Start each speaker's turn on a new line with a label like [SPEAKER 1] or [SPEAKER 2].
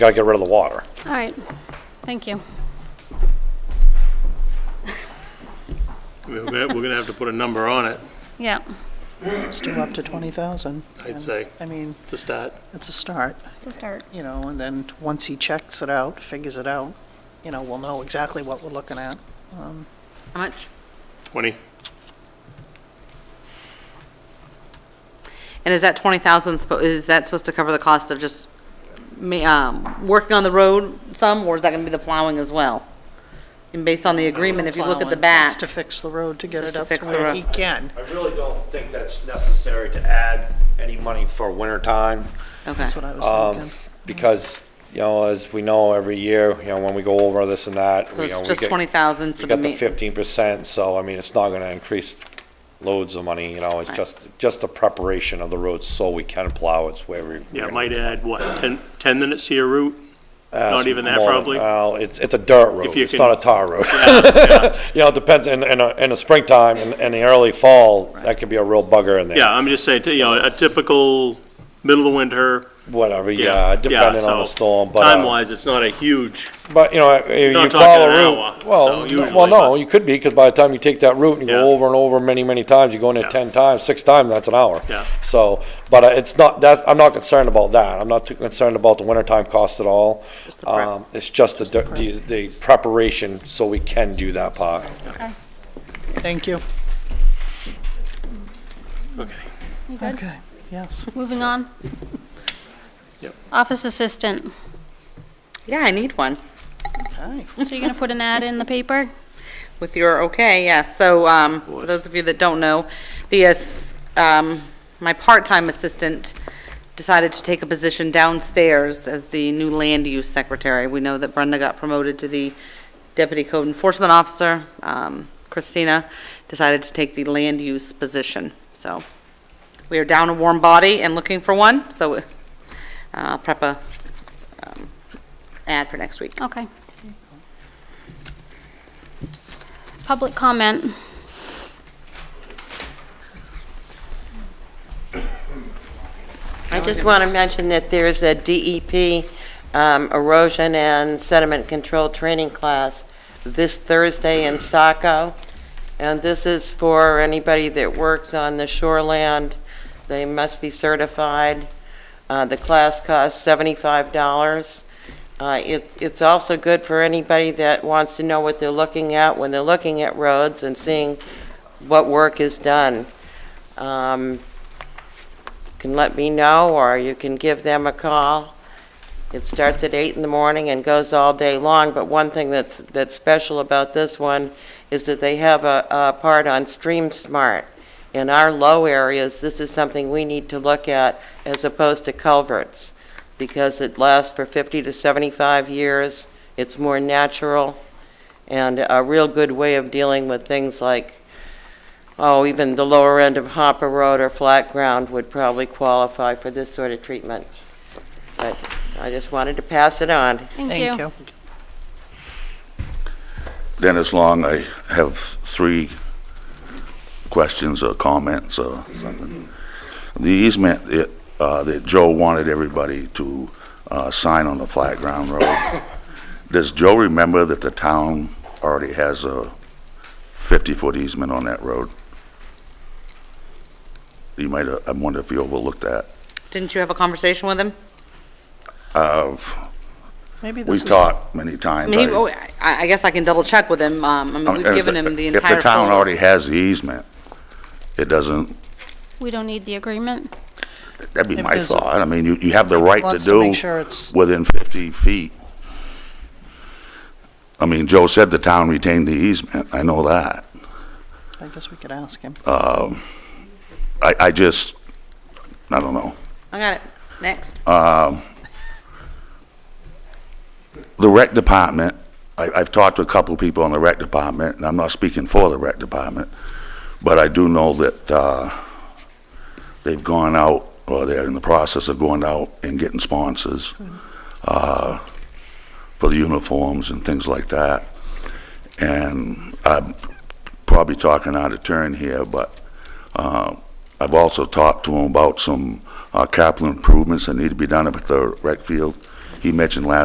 [SPEAKER 1] Gotta get rid of the water.
[SPEAKER 2] All right, thank you.
[SPEAKER 3] We're gonna we're gonna have to put a number on it,
[SPEAKER 2] Yeah,
[SPEAKER 4] Let's do up to 20,000.
[SPEAKER 3] I'd say,
[SPEAKER 4] I mean,
[SPEAKER 3] to start.
[SPEAKER 4] it's a start,
[SPEAKER 2] it's a start.
[SPEAKER 4] you know, and then once he checks it out, figures it out, you know, we'll know exactly what we're looking at. Um,
[SPEAKER 5] How much?
[SPEAKER 3] 20,
[SPEAKER 5] And is that 20,000, spo- is that supposed to cover the cost of just ma- um, working on the road some, or is that going to be the plowing as well? And based on the agreement, if you look at the
[SPEAKER 4] plowing,
[SPEAKER 5] back,
[SPEAKER 4] Just to fix the road, to get
[SPEAKER 5] Just
[SPEAKER 4] it
[SPEAKER 5] to
[SPEAKER 4] up to
[SPEAKER 5] fix the
[SPEAKER 4] where
[SPEAKER 5] road.
[SPEAKER 4] he can.
[SPEAKER 1] I really don't think that's necessary to add any money for winter time.
[SPEAKER 5] okay,
[SPEAKER 4] That's what I
[SPEAKER 6] Um,
[SPEAKER 4] was thinking.
[SPEAKER 1] because, you know, as we know, every year, you know, when we go over this and that.
[SPEAKER 5] so
[SPEAKER 1] you know, we
[SPEAKER 5] it's just
[SPEAKER 1] get-
[SPEAKER 5] 20,000
[SPEAKER 1] We
[SPEAKER 5] for the
[SPEAKER 1] got the
[SPEAKER 5] ma-
[SPEAKER 1] fifteen percent, so I mean, it's not gonna increase loads of money, you know, it's just, just the preparation of the roads so we can plow, it's where we.
[SPEAKER 3] yeah, it might add, what, 10, 10 minutes to your route?
[SPEAKER 1] Uh,
[SPEAKER 3] Not even that,
[SPEAKER 1] more.
[SPEAKER 3] probably?
[SPEAKER 1] Well, it's, it's a dirt road,
[SPEAKER 3] If you
[SPEAKER 1] it's
[SPEAKER 3] can-
[SPEAKER 1] not a tar road. You know, it depends, in, in, a- in the springtime and, and the early fall, that could be a real bugger in there.
[SPEAKER 3] Yeah, I'm just saying, you know, a typical middle of winter,
[SPEAKER 1] Whatever,
[SPEAKER 3] yeah.
[SPEAKER 1] yeah, depending on
[SPEAKER 3] so
[SPEAKER 1] the storm, but. uh,
[SPEAKER 3] Time-wise, it's not a huge,
[SPEAKER 1] But, you know, if
[SPEAKER 3] Not
[SPEAKER 1] you
[SPEAKER 3] talking
[SPEAKER 1] follow a
[SPEAKER 3] an hour,
[SPEAKER 1] route,
[SPEAKER 3] so
[SPEAKER 1] well, no-
[SPEAKER 3] usually,
[SPEAKER 1] well, no,
[SPEAKER 3] but-
[SPEAKER 1] you could be, because by the time you take that route and you go
[SPEAKER 3] Yeah.
[SPEAKER 1] over and over many, many times, you go in there
[SPEAKER 3] Yeah.
[SPEAKER 1] ten times, six times, that's an hour.
[SPEAKER 3] Yeah.
[SPEAKER 1] So, but uh, it's not, that's, I'm not concerned about that. I'm not too concerned about the wintertime cost at all.
[SPEAKER 5] Just the prep.
[SPEAKER 1] Um, it's just the, the, the preparation, so we can do that part.
[SPEAKER 4] Thank you.
[SPEAKER 3] okay.
[SPEAKER 2] You good?
[SPEAKER 4] Okay, yes.
[SPEAKER 2] Moving on.
[SPEAKER 3] Yep.
[SPEAKER 2] Office assistant.
[SPEAKER 5] yeah, I need one.
[SPEAKER 4] Okay.
[SPEAKER 2] So you're gonna put an ad in the paper?
[SPEAKER 5] With your okay, yes. So, um, for those of you that don't know, the, ass- um, my part-time assistant decided to take a position downstairs as the new land use secretary. We know that Brenda got promoted to the deputy code enforcement officer. Um, Christina decided to take the land use position. So, we are down a warm body and looking for one, so, uh, prep a, um, ad for next week.
[SPEAKER 2] Okay. Public comment.
[SPEAKER 7] I just want to mention that there is a DEP um, erosion and sediment control training class this Thursday in Saco, and this is for anybody that works on the shoreland. They must be certified. Uh, The class costs $75. Uh, it- It's also good for anybody that wants to know what they're looking at when they're looking at roads and seeing what work is done. Um, can let me know, or you can give them a call. It starts at eight in the morning and goes all day long, but one thing that's, that's special about this one is that they have a, a part on Stream Smart. In our low areas, this is something we need to look at as opposed to culverts, because it lasts for fifty to seventy-five years, it's more natural, and a real good way of dealing with things like oh, even the lower end of Hopper Road or flat ground would probably qualify for this sort of treatment. But I just wanted to pass it on.
[SPEAKER 2] Thank you.
[SPEAKER 6] Dennis Long, I have three questions or comments or something. The easement that, uh, that Joe wanted everybody to, uh, sign on the flat ground road, does Joe remember that the town already has a fifty-foot easement on that road? You might, have- I wonder if you overlooked that.
[SPEAKER 5] Didn't you have a conversation with him?
[SPEAKER 6] Uh,
[SPEAKER 4] Maybe
[SPEAKER 6] we
[SPEAKER 4] this is.
[SPEAKER 6] talked many times.
[SPEAKER 5] I mean,
[SPEAKER 6] I-
[SPEAKER 5] he- oh, I, I guess I can double check with him. Um, I
[SPEAKER 6] I
[SPEAKER 5] mean,
[SPEAKER 6] mean,
[SPEAKER 5] we've
[SPEAKER 6] Oh, if
[SPEAKER 5] given him the entire.
[SPEAKER 6] If the town
[SPEAKER 5] folder.
[SPEAKER 6] already has the easement, it doesn't
[SPEAKER 2] We don't need the agreement.
[SPEAKER 6] That'd be
[SPEAKER 4] If
[SPEAKER 6] my
[SPEAKER 4] there's a-
[SPEAKER 6] thought. I mean, you, you have the right to
[SPEAKER 4] Wants to
[SPEAKER 6] do
[SPEAKER 4] make sure it's-
[SPEAKER 6] within 50 feet. I mean, Joe said the town retained the easement. I know that.
[SPEAKER 4] I guess we could ask him.
[SPEAKER 6] Um, I, I just, I don't know.
[SPEAKER 5] I got it. Next.
[SPEAKER 6] Um, The rec department, I, I've talked to a couple people in the rec department, and I'm not speaking for the rec department, but I do know that, uh, they've gone out, or they're in the process of going out and getting sponsors, uh, for the uniforms and things like that. And I'm probably talking out of turn here, but, uh, I've also talked to them about some, uh, capital improvements that need to be done up at the rec field. he mentioned last